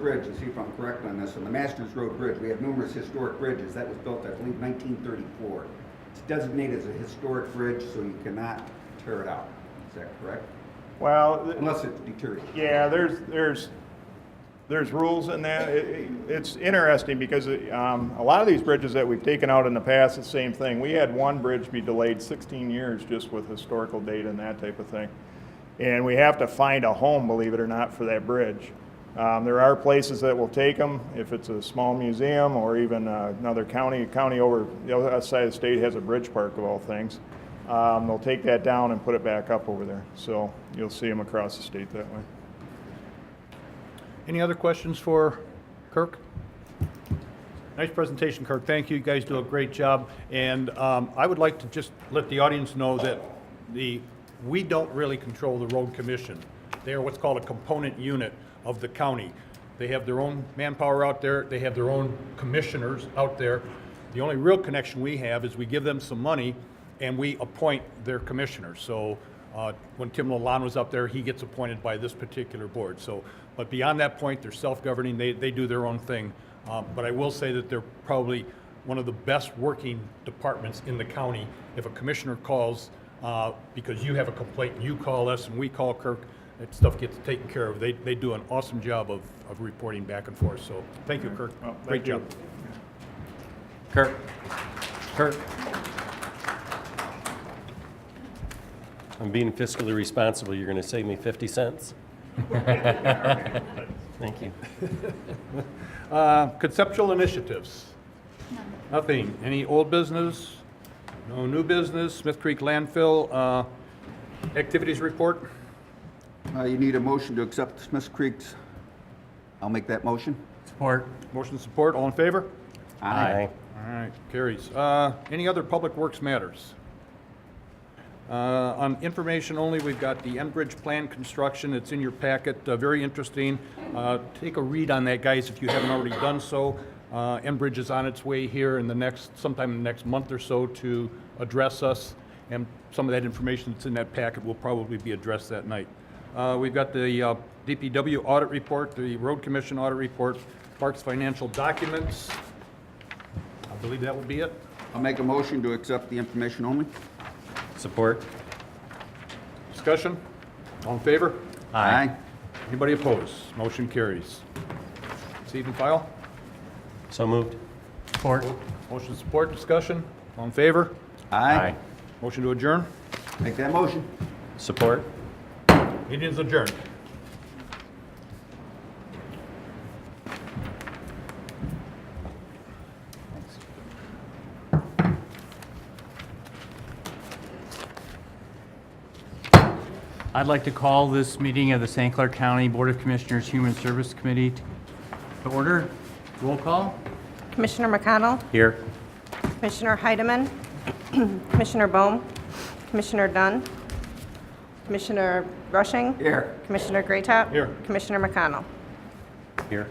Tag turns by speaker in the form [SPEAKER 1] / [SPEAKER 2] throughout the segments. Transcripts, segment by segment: [SPEAKER 1] Bridge, and see if I'm correct on this, on the Masters Road Bridge, we have numerous historic bridges, that was built, I believe, nineteen thirty-four. It's designated as a historic bridge, so you cannot tear it out, is that correct?
[SPEAKER 2] Well, th-
[SPEAKER 1] Unless it's deteriorated.
[SPEAKER 2] yeah, there's, there's, there's rules in that. It- it- It's interesting because um, a lot of these bridges that we've taken out in the past, it's the same thing. We had one bridge be delayed 16 years just with historical data and that type of thing. And we have to find a home, believe it or not, for that bridge. Um, There are places that will take them, if it's a small museum or even uh, another county, a county over, the other side of the state has a bridge park of all things. Um, They'll take that down and put it back up over there. So you'll see them across the state that way.
[SPEAKER 3] Any other questions for Kirk? Nice presentation, Kirk. Thank you. You guys do a great job. And um, I would like to just let the audience know that the, we don't really control the road commission. They are what's called a component unit of the county. They have their own manpower out there. They have their own commissioners out there. The only real connection we have is we give them some money and we appoint their commissioners. So uh, when Tim Lalonde was up there, he gets appointed by this particular board. So, but beyond that point, they're self-governing, they, they do their own thing. Um, But I will say that they're probably one of the best working departments in the county. If a commissioner calls, uh, because you have a complaint, you call us and we call Kirk, that stuff gets taken care of. They, they do an awesome job of, of reporting back and forth, so thank you, Kirk.
[SPEAKER 2] Well, thank
[SPEAKER 3] Great
[SPEAKER 2] you.
[SPEAKER 3] job.
[SPEAKER 4] Kirk. Kirk. I'm being fiscally responsible. You're going to save me 50 cents? Thank you.
[SPEAKER 3] Uh, Conceptual initiatives? Nothing. Any old business? No new business? Smith Creek landfill, uh, activities report?
[SPEAKER 1] Uh, you need a motion to accept Smith Creek's, I'll make that motion.
[SPEAKER 4] Support.
[SPEAKER 3] Motion support, all in favor?
[SPEAKER 4] Aye.
[SPEAKER 3] All right, carries. Uh, Any other Public Works matters? Uh, On information only, we've got the Enbridge Plan Construction, it's in your packet, uh, very interesting. Uh, Take a read on that, guys, if you haven't already done so. Uh, Enbridge is on its way here in the next, sometime in the next month or so to address us, and some of that information that's in that packet will probably be addressed that night. Uh, We've got the uh, DPW audit report, the Road Commission audit report, Parks financial documents, I believe that would be it.
[SPEAKER 1] I'll make a motion to accept the information only.
[SPEAKER 4] Support.
[SPEAKER 3] Discussion? All in favor?
[SPEAKER 1] Aye.
[SPEAKER 3] Anybody opposed? Motion carries. Receive and file.
[SPEAKER 4] So moved. Support.
[SPEAKER 3] Motion support, discussion? All in favor?
[SPEAKER 1] Aye.
[SPEAKER 3] Motion to adjourn?
[SPEAKER 1] Make that motion.
[SPEAKER 4] Support.
[SPEAKER 3] Meeting is adjourned.
[SPEAKER 5] I'd like to call this meeting of the St. Clair County Board of Commissioners Human Service Committee to order. Roll call?
[SPEAKER 6] Commissioner McConnell,
[SPEAKER 4] Here.
[SPEAKER 6] Commissioner Heidemann, Commissioner Bohm, Commissioner Dunn, Commissioner Rushing.
[SPEAKER 1] Here.
[SPEAKER 6] Commissioner Greatop.
[SPEAKER 3] Here.
[SPEAKER 6] Commissioner McConnell.
[SPEAKER 4] Here.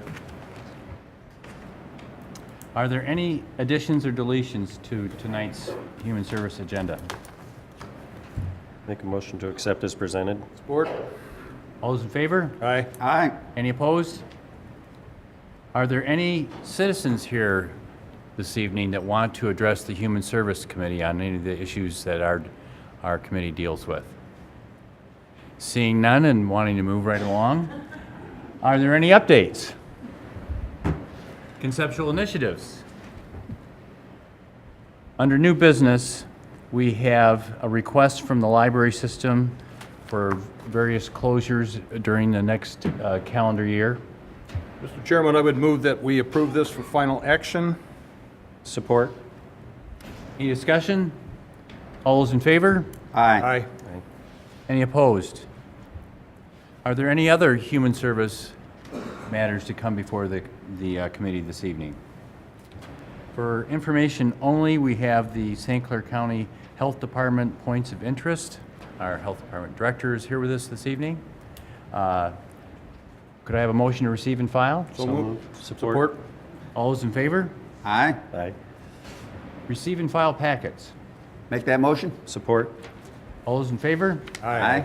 [SPEAKER 5] Are there any additions or deletions to tonight's Human Service agenda?
[SPEAKER 4] Make a motion to accept as presented.
[SPEAKER 3] Support?
[SPEAKER 5] All those in favor?
[SPEAKER 3] Aye.
[SPEAKER 1] Aye.
[SPEAKER 5] Any opposed? Are there any citizens here this evening that want to address the Human Service Committee on any of the issues that our, our committee deals with? Seeing none and wanting to move right along, are there any updates? Conceptual initiatives? Under new business, we have a request from the library system for various closures during the next uh, calendar year.
[SPEAKER 3] Mr. Chairman, I would move that we approve this for final action.
[SPEAKER 4] Support.
[SPEAKER 5] Any discussion? All those in favor?
[SPEAKER 1] Aye.
[SPEAKER 3] Aye.
[SPEAKER 5] Any opposed? Are there any other human service matters to come before the, the uh, committee this evening? For information only, we have the St. Clair County Health Department Points of Interest. Our Health Department Director is here with us this evening. Uh, Could I have a motion to receive and file?
[SPEAKER 4] So moved. Support.
[SPEAKER 3] Support?
[SPEAKER 5] All those in favor?
[SPEAKER 1] Aye.
[SPEAKER 4] Aye.
[SPEAKER 5] Receive and file packets.
[SPEAKER 1] Make that motion.
[SPEAKER 4] Support.
[SPEAKER 5] All those in favor?
[SPEAKER 1] Aye.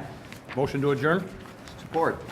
[SPEAKER 3] Motion to adjourn?
[SPEAKER 1] Support.